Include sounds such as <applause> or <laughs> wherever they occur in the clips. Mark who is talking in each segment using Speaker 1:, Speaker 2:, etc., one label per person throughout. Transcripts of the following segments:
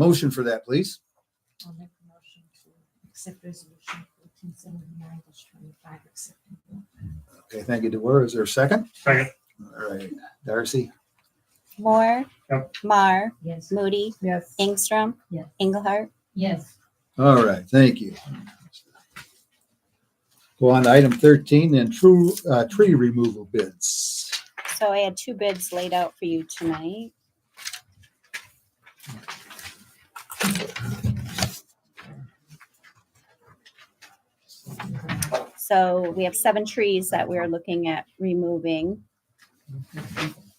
Speaker 1: Motion for that, please.
Speaker 2: I'll make a motion to accept resolution fourteen seventy-nine twenty-five, accepting. bill.
Speaker 1: Okay, thank you, DeWar. Is there a second?
Speaker 3: Second.
Speaker 1: All right, Darcy,
Speaker 4: Moore,
Speaker 3: Yep.
Speaker 4: Mar,
Speaker 2: Yes.
Speaker 4: Moody,
Speaker 2: Yes.
Speaker 4: Ingstrom,
Speaker 2: Yes.
Speaker 4: Engelhardt.
Speaker 2: Yes.
Speaker 1: All right, thank you. Go on to item thirteen, then true, uh, tree removal bids.
Speaker 4: So I had two bids laid out for you tonight. So we have seven trees that we're looking at removing.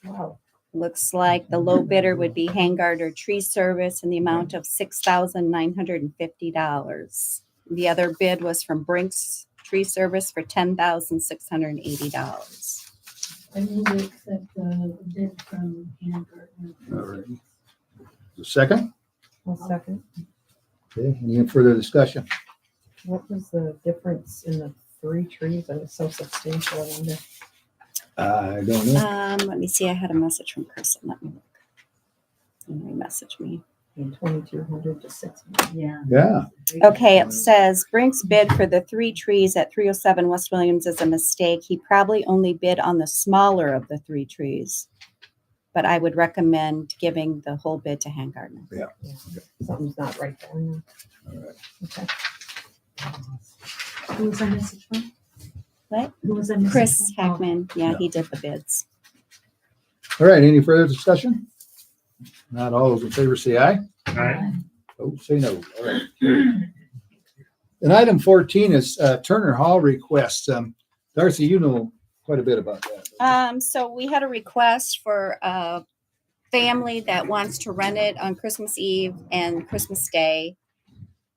Speaker 2: Wow.
Speaker 4: Looks like the low bidder would be Hangard or Tree Service in the amount of six thousand nine hundred and fifty dollars. The other bid was from Brinks Tree Service for ten thousand six hundred and eighty dollars.
Speaker 2: I move to accept the bid from Hannah
Speaker 1: All right. The second,
Speaker 5: One second.
Speaker 1: okay, any further discussion?
Speaker 5: What was the difference in the three trees that was so substantial? I wonder.
Speaker 1: I don't know.
Speaker 4: Um, let me see. I had a message from Kristen. Let me look. And they messaged me.
Speaker 5: Twenty-two hundred to six.
Speaker 2: Yeah.
Speaker 1: Yeah,
Speaker 4: Okay, it says Brink's bid for the three trees at 307 West Williams is a mistake. He probably only bid on the smaller of the three trees. But I would recommend giving the whole bid to Hangartner.
Speaker 5: Something's not right there. Okay.
Speaker 2: Who was that message from?
Speaker 4: What?
Speaker 2: Who was that message?
Speaker 4: Chris
Speaker 2: from?
Speaker 5: Mm-hmm.
Speaker 2: Oh,
Speaker 4: Hackman, yeah, he did the bids.
Speaker 1: all right, any further discussion? Not all those in favor say aye.
Speaker 3: Aye.
Speaker 1: Oh, say no. All right. And item fourteen is uh, Turner Hall request. Um, Darcy, you know quite a bit about that.
Speaker 4: Um, so we had a request for a family that wants to rent it on Christmas Eve and Christmas Day,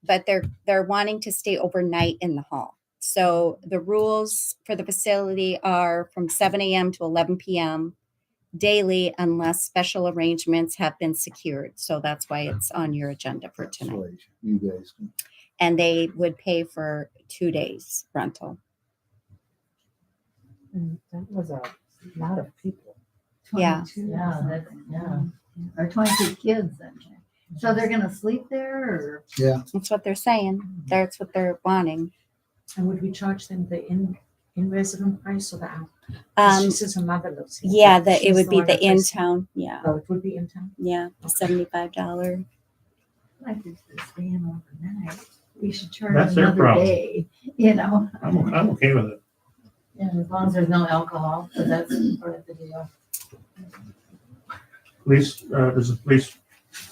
Speaker 4: but they're they're wanting to stay overnight in the hall. So the rules for the facility are from 7 a.m. to 11 p.m. daily unless special arrangements have been secured. So that's why it's on your agenda for tonight.
Speaker 1: You guys. can-
Speaker 4: And they would pay for two days rental.
Speaker 5: And Mm, That was a lot of people.
Speaker 4: Yeah.
Speaker 2: 22. Yeah, that's, yeah. Or twenty-two kids, okay. So they're gonna sleep there or?
Speaker 4: That's what they're saying.
Speaker 6: Mm-hmm.
Speaker 4: That's what they're wanting.
Speaker 6: And would we charge them the in, in resident price or the out?
Speaker 4: Um,
Speaker 6: she says her mother lives here.
Speaker 4: Yeah, that it
Speaker 6: She's
Speaker 4: would be
Speaker 6: one
Speaker 4: the
Speaker 6: that
Speaker 4: in
Speaker 6: lives-
Speaker 4: town. Yeah,
Speaker 6: Oh, it would be in town.
Speaker 4: yeah, the seventy-five dollar.
Speaker 7: Like if they're staying overnight, we should turn
Speaker 3: That's their
Speaker 7: another
Speaker 3: problem.
Speaker 7: day, you know?
Speaker 3: I'm, I'm okay with it.
Speaker 2: Yeah, as long as there's no alcohol, so that's part of the deal.
Speaker 3: Police, uh, does the police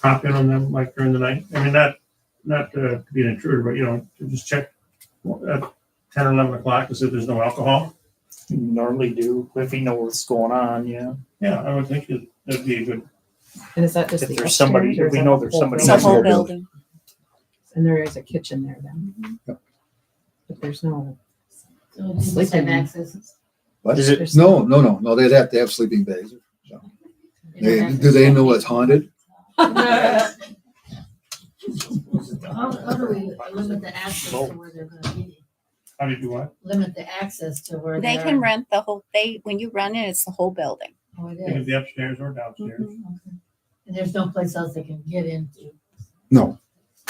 Speaker 3: pop in on them like during the night? I mean, not, not uh, to be an intruder, but you know, to just check at ten or eleven o'clock to see if there's no alcohol.
Speaker 8: normally do if he knows what's going on, yeah.
Speaker 3: Yeah, I would think it- that'd be a good,
Speaker 5: And is that just
Speaker 8: If
Speaker 5: the
Speaker 8: there's somebody-
Speaker 5: upstairs or
Speaker 8: if we
Speaker 5: is that
Speaker 8: know
Speaker 5: the
Speaker 8: there's
Speaker 5: whole
Speaker 8: somebody
Speaker 4: It's
Speaker 5: building?
Speaker 4: a
Speaker 1: That's
Speaker 4: whole
Speaker 1: their bill.
Speaker 4: building.
Speaker 5: And there is a kitchen there then.
Speaker 1: Yep.
Speaker 5: But there's no.
Speaker 2: So we Mm-hmm. just have
Speaker 5: Sleeping. <laughs>
Speaker 2: access.
Speaker 1: What?
Speaker 8: Is it-
Speaker 1: No, no, no, no, they'd have to have sleeping bags. They- Do they know it's haunted?
Speaker 2: How, how do we limit the access to where they're gonna be?
Speaker 3: how do you do what?
Speaker 2: Limit the access to where
Speaker 4: They
Speaker 2: they're.
Speaker 4: can rent the whole, they, when you run it, it's the whole building.
Speaker 2: Oh, it
Speaker 3: It could
Speaker 2: is.
Speaker 3: be upstairs or downstairs.
Speaker 4: Mhm.
Speaker 2: Okay. And there's no place else they can get into,
Speaker 1: No,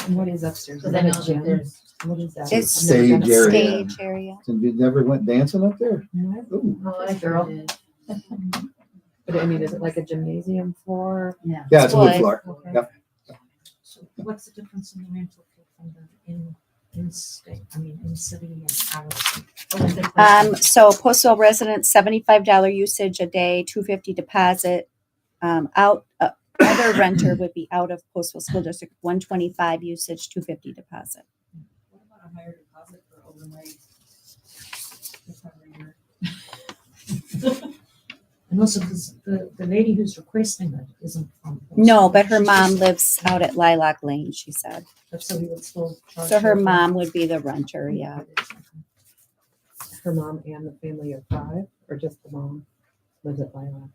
Speaker 5: And what is upstairs? Is
Speaker 2: because I
Speaker 5: that a
Speaker 2: know that
Speaker 5: gym?
Speaker 2: there's.
Speaker 5: What is that?
Speaker 4: It's
Speaker 5: I've never been
Speaker 1: stage area.
Speaker 5: upstairs.
Speaker 4: Stage area.
Speaker 1: and you never went dancing up there?
Speaker 5: No,
Speaker 1: Ooh.
Speaker 2: Oh, I
Speaker 5: Yes, girl.
Speaker 2: did.
Speaker 5: But I mean, is it like a gymnasium floor?
Speaker 2: Yeah.
Speaker 1: Yeah, it's a wood
Speaker 4: Wood.
Speaker 1: floor.
Speaker 5: Okay.
Speaker 6: So what's the difference in the rental fee from the in, in state, I mean, in city and out?
Speaker 4: Um, so postal residents, seventy-five dollar usage a day, two fifty deposit. Um, out, uh, other renter would be out of postal school district, one twenty-five usage, two fifty deposit.
Speaker 6: What about a higher deposit for overnight? And also, because the, the lady who's requesting it isn't from.
Speaker 4: No, but her mom lives out at Lilac Lane, she said.
Speaker 6: But So we would still. charge
Speaker 4: So her
Speaker 6: for-
Speaker 4: mom would be the renter, yeah.
Speaker 5: Her mom and the family of five, or just the mom lives at Lilac?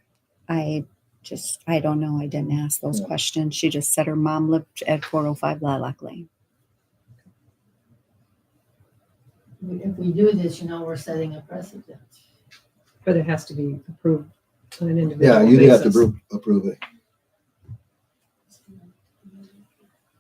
Speaker 4: I just, I don't know. I didn't ask those
Speaker 1: Yeah.
Speaker 4: questions. She just said her mom lived at 405 Lilac Lane.
Speaker 2: If we do this, you know, we're setting a precedent.
Speaker 5: But it has to be approved on an individual
Speaker 1: Yeah,
Speaker 5: basis.
Speaker 1: you'd have to approve, approve it.